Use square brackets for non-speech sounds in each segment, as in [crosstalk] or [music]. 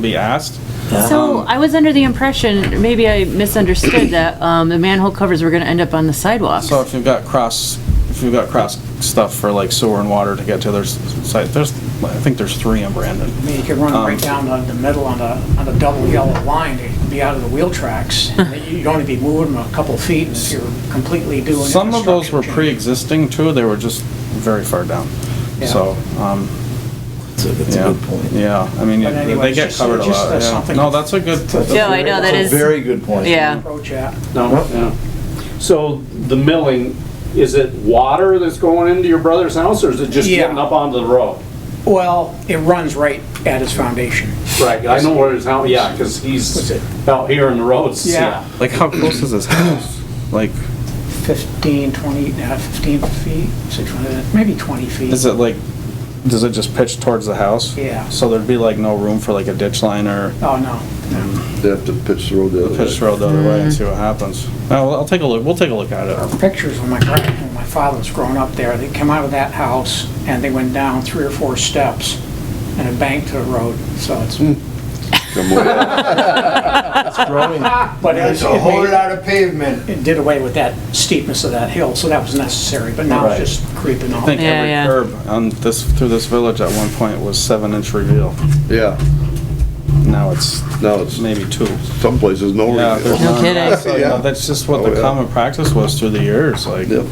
be asked. Um, So Um, I was under the impression, maybe I misunderstood, that um, the manhole covers were going to end up on the sidewalks. So if you've got cross, if you've got cross stuff for like sewer and water to get to their s- site, there's, I think there's three in Brandon. I mean, you could run Um, right down the- the middle on the, on the double yellow line, it'd be out of the wheel tracks. And You'd only be moving them a couple feet if you're completely doing. Some of those were infrastructure change. pre-existing too, they were just very far down. Yeah. So, um, That's a, that's yeah, a good point. yeah, I mean, But they anyway, get just- covered a just, uh, lot, yeah. something- No, that's a good, That's [laughs] a yeah, Yeah, I know, that very- is- Very good point. Yeah. Approach that. No, yeah. So the milling, is it water that's going into your brother's house or is it just Yeah. getting up onto the road? Well, it runs right at his foundation. Right, I know where his house, yeah, because What's he's it? out here in the roads. Yeah. like how close is his house? Like, 15, 20, uh, 15 feet, 600, maybe 20 feet. is it like, does it just pitch towards the house? Yeah. So there'd be like no room for like a ditch line or uh, Oh, no, no. They have to pitch the road the other pitch way. road the other way and see what happens. I'll, I'll take a look, we'll take a look at it. Pictures when my grand, when my father was growing up there, they come out of that house and they went down three or four steps and it banked to the road, so it's. Come on. But it- It's a it whole made- lot of pavement. it did away with that steepness of that hill, so that was necessary, but now Right. it's just creeping I off. think Yeah, every yeah. curb on this, through this village at one point was seven inch reveal. [laughs] Yeah, Now it's now it's, maybe two. some places no Yeah, there's reveal. none. kidding. So, you know, That's just what Oh, the yeah. common practice was through the years, like. Yeah.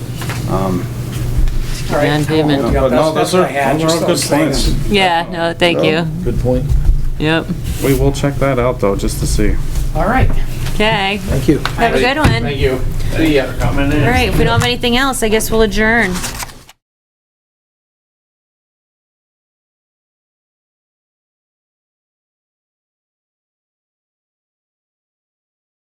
All right, Down payment. yeah, But no, that's- that's those what are, I had, those just are all good those things. points. Yeah, no, thank you. Good point. Yep. We will check that out though, just to see. All right. Okay. Thank you. Have a good one. Thank you. See ya. All right, if we don't have anything else, I guess we'll adjourn.